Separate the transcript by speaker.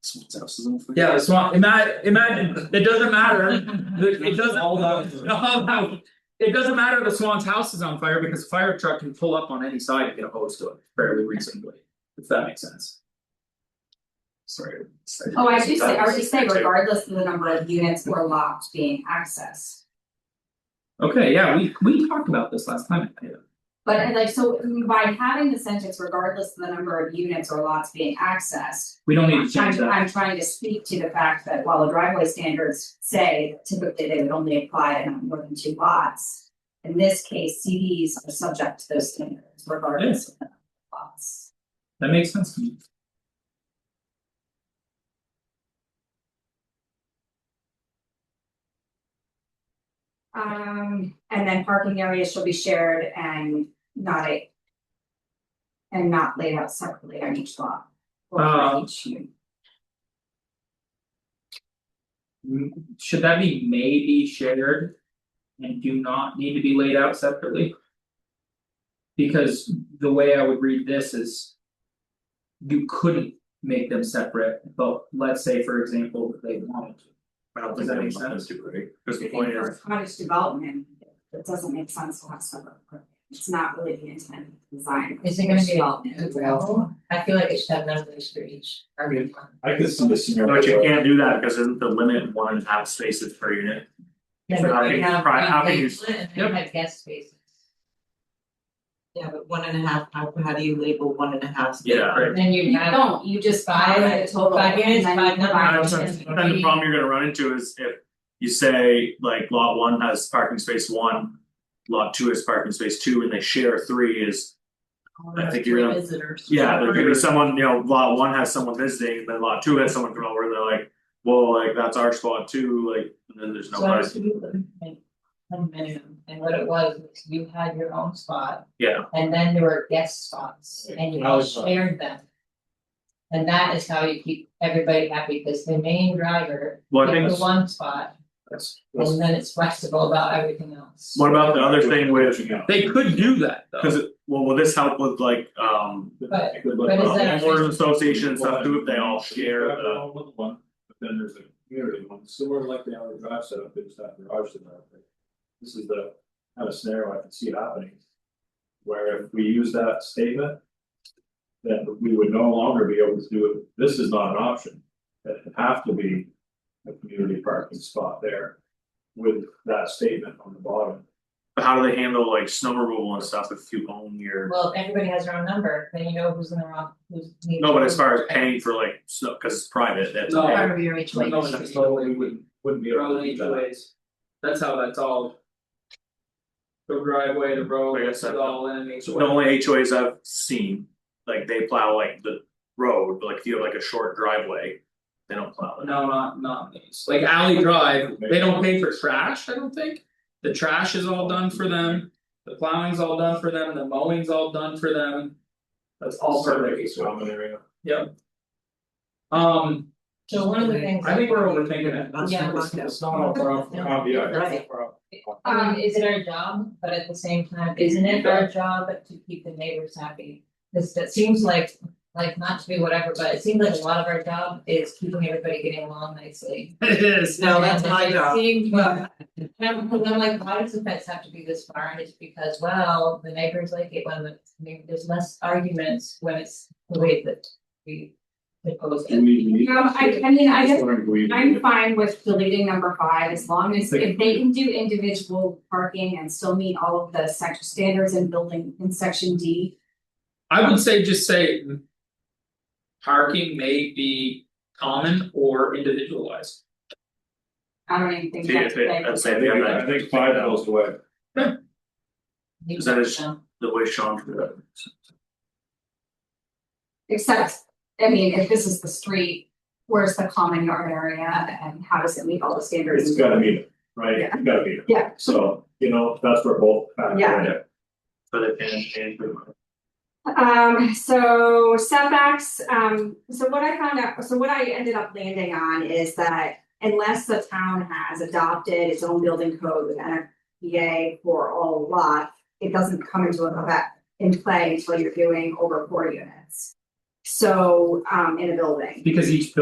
Speaker 1: Someone's house is on fire.
Speaker 2: Yeah, so imagine, imagine, it doesn't matter, the- it doesn't.
Speaker 3: All those.
Speaker 2: All those. It doesn't matter if the Swan's house is on fire because a fire truck can pull up on any side and get a hose to it fairly reasonably, if that makes sense.
Speaker 1: Sorry.
Speaker 4: Oh, I do say, I would just say regardless of the number of units or lots being accessed.
Speaker 2: Okay, yeah, we we talked about this last time. yeah.
Speaker 4: But and like, so by having the sentence regardless of the number of units or lots being accessed.
Speaker 2: We don't need
Speaker 4: I'm
Speaker 2: to change that.
Speaker 4: I'm trying to speak to the fact that while the driveway standards say typically they would only apply to not more than two lots. In this case, CDs are subject to those standards regardless of the number of lots.
Speaker 2: That makes sense to me.
Speaker 4: Um, and then parking areas shall be shared and not a. And not laid out separately on each lot. Or
Speaker 2: Uh,
Speaker 4: on each unit.
Speaker 2: Mm, Should that be maybe shared? And do not need to be laid out separately? Because the way I would read this is. You couldn't make them separate, but let's say for example, that they wanted to.
Speaker 1: I don't
Speaker 2: Does
Speaker 1: think
Speaker 2: that
Speaker 1: that
Speaker 2: make
Speaker 1: makes sense
Speaker 2: sense?
Speaker 1: to right? Cause the
Speaker 4: I think
Speaker 1: point
Speaker 4: for
Speaker 1: is,
Speaker 4: cottage development, it doesn't make sense to have separate. It's not really the intent of the design.
Speaker 5: Is it gonna be all available? I feel like it should have numbers for each.
Speaker 1: I mean,
Speaker 5: one.
Speaker 3: I could see this scenario.
Speaker 1: but you can't do that because isn't the limit one and a half spaces per unit?
Speaker 5: Yeah,
Speaker 1: So
Speaker 5: but
Speaker 1: how
Speaker 5: they
Speaker 1: can you
Speaker 5: have
Speaker 1: pri- how
Speaker 5: one
Speaker 1: can you
Speaker 5: basement And they
Speaker 2: Yep.
Speaker 5: have guest spaces.
Speaker 6: Yeah, but one and a half, how how do you label one and a half? space?
Speaker 1: Yeah, right.
Speaker 5: Then you
Speaker 4: You
Speaker 5: have
Speaker 4: don't, you just buy
Speaker 5: five,
Speaker 4: the total.
Speaker 5: five units,
Speaker 4: and then
Speaker 5: five
Speaker 4: you
Speaker 1: I
Speaker 5: numbers.
Speaker 4: divide
Speaker 1: don't
Speaker 4: it.
Speaker 1: know, but then the problem you're gonna run into is if you say like lot one has parking space one. Lot two has parking space two and they share three is, I think you're gonna,
Speaker 6: Visitors.
Speaker 1: yeah, there could be someone, you know, lot one has someone visiting, then lot two has someone come over and they're like. Well, like that's our spot too, like, and then there's
Speaker 5: So I
Speaker 1: nobody,
Speaker 5: was minimum, and what it was, was you had your own spot.
Speaker 1: Yeah.
Speaker 5: And then there were guest spots, and you all
Speaker 3: Alley spot.
Speaker 5: shared them. And that is how you keep everybody happy, because the main driver,
Speaker 1: well, I think.
Speaker 5: is the one spot,
Speaker 3: That's- that's-
Speaker 5: and then it's flexible about everything else.
Speaker 1: What about the other thing with,
Speaker 3: Reaching out.
Speaker 2: They could do that
Speaker 1: cause
Speaker 2: though,
Speaker 1: it, well, will this help with like, um.
Speaker 5: But-
Speaker 1: uh,
Speaker 5: But is that-
Speaker 1: homeowners association and stuff too, if they all share uh,
Speaker 3: Well,
Speaker 1: the,
Speaker 3: all with One, but then there's a community one, similar like the other drive setup, there's that garage setup. This is the kind of scenario I can see happening. Where if we use that statement. Then we would no longer be able to do it, this is not an option, that would have to be. A community parking spot there. With that statement on the bottom.
Speaker 1: but how do they handle like snow removal and stuff if you own your.
Speaker 5: Well, everybody has their own number, then you know who's in the wrong, who's. needs
Speaker 1: No, but as
Speaker 5: who's-
Speaker 1: far as paying for like, snow, cause it's private, that's.
Speaker 2: No.
Speaker 5: Part of your each way.
Speaker 2: No, that's totally wouldn't-
Speaker 3: Wouldn't be
Speaker 2: they're
Speaker 3: able
Speaker 2: all
Speaker 3: to do
Speaker 2: each
Speaker 3: that.
Speaker 2: ways. That's how that's all. The driveway, the road,
Speaker 1: I
Speaker 2: it's
Speaker 1: guess that-
Speaker 2: all in each
Speaker 1: The
Speaker 2: way.
Speaker 1: only HOAs I've seen, like they plow like the road, but like if you have like a short driveway, they don't plow it.
Speaker 2: No, not not these, like Alley Drive, they don't pay for trash, I don't think. The trash is all done for them, the plowing's all done for them, the mowing's all done for them. That's all
Speaker 3: Sort
Speaker 2: for
Speaker 3: of
Speaker 2: them,
Speaker 3: like a common area.
Speaker 2: um,
Speaker 5: So one of the things.
Speaker 2: I think we're overthinking it.
Speaker 5: Yeah.
Speaker 6: That's not-
Speaker 3: It's not all problem, um, yeah, it's not a
Speaker 5: Right.
Speaker 3: problem.
Speaker 5: I mean, is it our job, but at the same time, isn't it our job to keep the neighbors happy? This, that seems like, like not to be whatever, but it seems like a lot of our job is keeping everybody getting along nicely.
Speaker 2: It is,
Speaker 6: No, that's my
Speaker 5: And it
Speaker 6: job.
Speaker 5: seems- well, and I'm, 'cause I'm like, why does the fence have to be this far, and it's because, well, the neighbors like it when the, I mean, there's less arguments when it's the way that we. Propose
Speaker 3: Do
Speaker 5: it,
Speaker 3: we need-
Speaker 4: No, I I mean, I
Speaker 3: Just
Speaker 4: guess
Speaker 3: wondering, do we need
Speaker 4: I'm
Speaker 3: it?
Speaker 4: fine with deleting number five as long as if they can do individual parking and still meet all of the section standards and building in section D.
Speaker 2: I would say just say. mm, Parking may be common or individualized,
Speaker 4: I don't even think
Speaker 1: See,
Speaker 4: that's
Speaker 1: if it,
Speaker 4: okay.
Speaker 1: I'd say
Speaker 3: I
Speaker 1: if you
Speaker 3: think,
Speaker 1: have
Speaker 3: I
Speaker 1: that,
Speaker 3: think five goes away.
Speaker 5: you
Speaker 1: Is that
Speaker 5: know.
Speaker 1: a- the way Sean did it.
Speaker 4: Except, I mean, if this is the street, where's the common yard area and how does it meet all the standards?
Speaker 3: It's gotta meet it, right,
Speaker 4: Yeah.
Speaker 3: it's gotta meet it.
Speaker 4: Yeah.
Speaker 3: So, you know, that's where both factors
Speaker 4: Yeah.
Speaker 3: in.
Speaker 1: But they can, can
Speaker 4: Um, so setbacks, um, so what I found out, so what I ended up landing on is that unless the town has adopted its own building code with NFPA for all lots, it doesn't come into effect in play until you're doing over four units.
Speaker 7: So, um, in a building.
Speaker 4: because each building